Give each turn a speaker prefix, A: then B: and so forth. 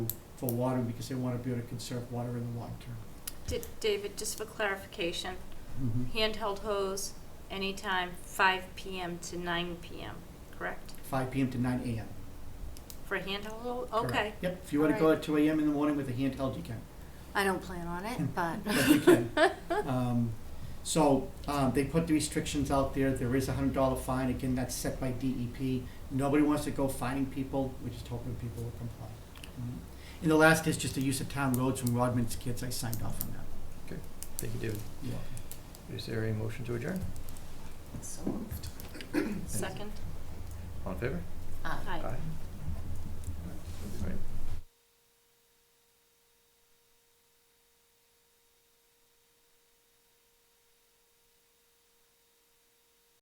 A: for water because they want to be able to conserve water in the long term.
B: D- David, just for clarification,
A: Mm-hmm.
B: handheld hose anytime five PM to nine PM, correct?
A: Five PM to nine AM.
B: For handheld, hose?
A: correct.
B: okay.
A: Yep, if you want to go at two AM in the morning with a handheld, you can.
C: I don't plan on it, but
A: But you can. Um, So, um, they put the restrictions out there, there is a hundred dollar fine, again, that's set by DEP. Nobody wants to go fining people, we're just hoping people will comply. Mm. And the last is just the use of town roads from Rodman's kids, I signed off on that.
D: Thank you, David.
A: You're welcome.
D: Is there a motion to adjourn?
C: so moved.
B: Second,
D: All in favor?
C: Aye.
B: aye.
D: Aye.